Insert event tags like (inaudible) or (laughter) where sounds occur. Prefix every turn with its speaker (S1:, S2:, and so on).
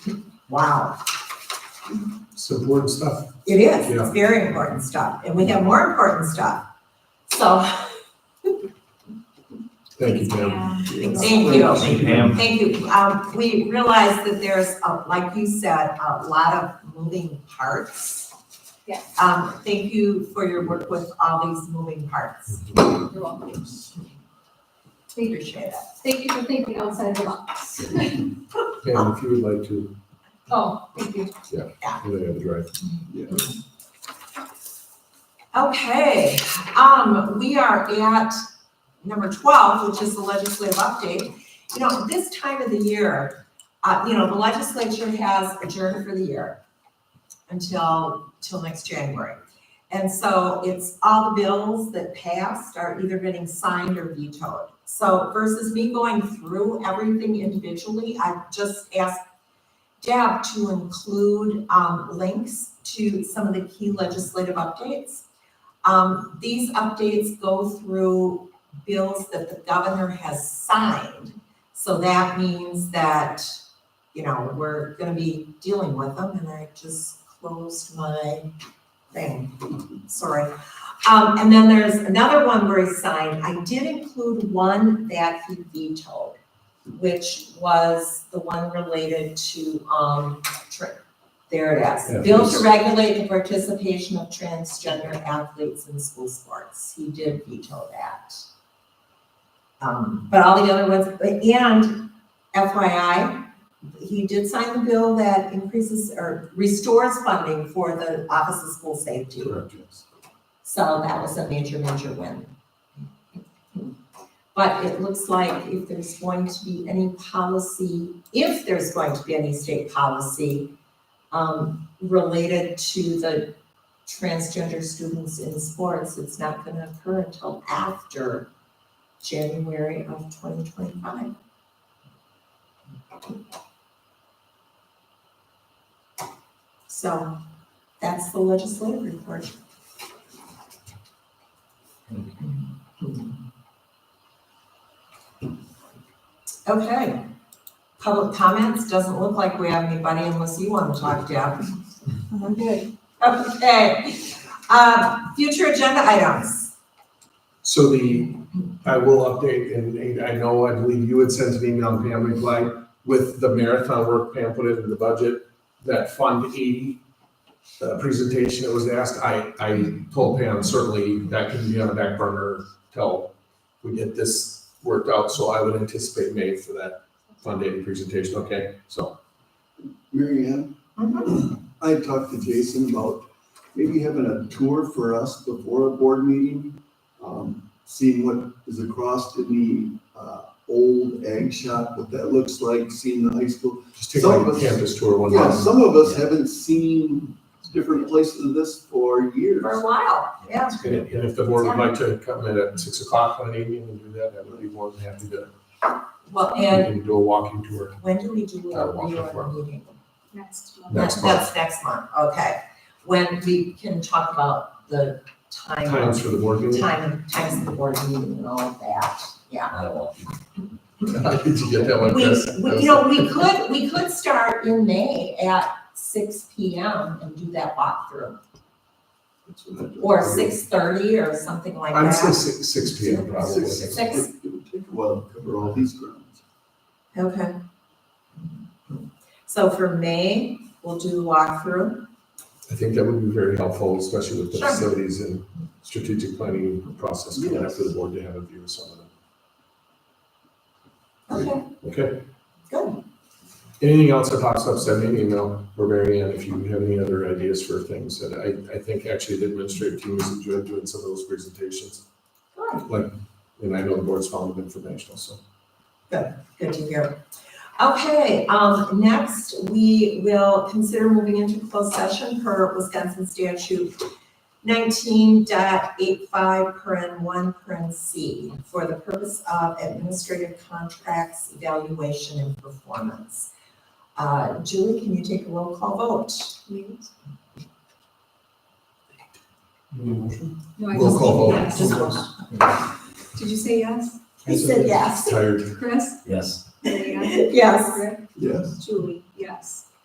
S1: Wow,
S2: It's important stuff.
S1: it is, it's
S2: Yeah.
S1: very important stuff, and we have more important stuff. So,
S2: Thank you, Pam.
S1: thank you.
S3: Thank you, Pam.
S1: Thank you. Um, we realize that there's, uh, like you said, a lot of moving parts.
S4: Yes.
S1: Um, thank you for your work with all these moving parts.
S4: You're welcome. Thank you.
S1: Appreciate it.
S4: Thank you for thinking outside the box.
S2: Pam, if you would like to,
S4: Oh, thank you.
S2: you know, the right.
S1: Okay, um, we are at number twelve, which is the legislative update. You know, this time of the year, uh, you know, the legislature has adjourned for the year until, till next January. And so it's all the bills that passed are either getting signed or vetoed. So versus me going through everything individually, I just asked Deb to include um, links to some of the key legislative updates. Um, These updates go through bills that the governor has signed. So that means that, you know, we're gonna be dealing with them, and I just closed my thing, sorry. Um, And then there's another one where he signed, I did include one that he vetoed which was the one related to, um, tra- there it
S2: Yeah,
S1: is. Bill
S2: please.
S1: to regulate the participation of transgender athletes in school sports. He did veto that. Um, but all the other ones, but- and FYI, he did sign the bill that increases or restores funding for the Office of School Safety.
S2: Correct, yes.
S1: So that was a major, major win. But it looks like if there's going to be any policy, if there's going to be any state policy um, related to the transgender students in sports, it's not gonna occur until after January of twenty twenty-five. So that's the legislative report. Okay. Public comments, doesn't look like we have anybody unless you want to talk, Deb.
S4: I'm good.
S1: Okay. Uh, Future agenda items.
S2: So the, I will update, and and I know, I believe you had sent an email, Pam replied, with the marathon work Pam put into the budget, that Fund 80 uh, presentation that was asked, I, I told Pam, certainly that can be on the back burner till we get this worked out, so I would anticipate May for that Fund 80 presentation, okay? So,
S5: Mary Ann, (clears throat) I talked to Jason about maybe having a tour for us before a board meeting. Um, seeing what is across in the, uh, old egg shop, what that looks like, seeing the high school.
S2: just take
S5: Some
S2: like
S5: of
S2: a
S5: us-
S2: campus tour one
S5: Yeah,
S2: month.
S5: some of us haven't seen different places of this for years.
S1: For a while, yeah.
S2: And if- and if the board would like to come in at six o'clock on an evening and do that, I would be more than happy to
S1: Well,
S2: We
S1: and
S2: can do a walking tour.
S1: when do we do
S2: Uh,
S1: a
S2: walk the floor.
S1: reorg meeting?
S4: Next. um,
S2: Next
S1: That-
S2: month.
S1: That's next month, okay. When we can talk about the time.
S2: Times for the board meeting?
S1: Time, times of the board meeting and all of that, yeah.
S2: (laughs) Did you get that one?
S1: We,
S2: Chris?
S1: we- you know, we could, we could start in May at six P M and do that walkthrough.
S5: That's what I thought.
S1: Or six thirty or something like
S2: I'd say
S1: that.
S2: six, six P M probably.
S5: Six.
S1: Six.
S5: It would take a while to cover all these grounds.
S1: Okay. So for May, we'll do the walkthrough.
S2: I think that would be very helpful, especially with the
S1: Sure.
S2: facilities and strategic planning process coming up
S5: Yes.
S2: for the board to have a view of some of them.
S1: Okay,
S2: Okay,
S1: good.
S2: anything else that pops up, send me an email or Mary Ann if you have any other ideas for things. And I, I think actually the administrative team has enjoyed doing some of those presentations.
S1: Good.
S2: Like, and I know the board's found them informational, so.
S1: Good to hear. Okay, um, next, we will consider moving into closed session per Wisconsin statute nineteen dot eight five per N one per N C for the purpose of administrative contracts, evaluation, and performance. Uh, Julie, can you take a roll call vote?
S4: No, I
S2: Roll call vote.
S4: just- yes. Did you say yes?
S1: I said yes.
S2: Tired.
S4: Chris?
S3: Yes.
S4: Mary Ann?
S1: Yes.
S4: Rick?
S5: Yes.
S4: Julie, yes.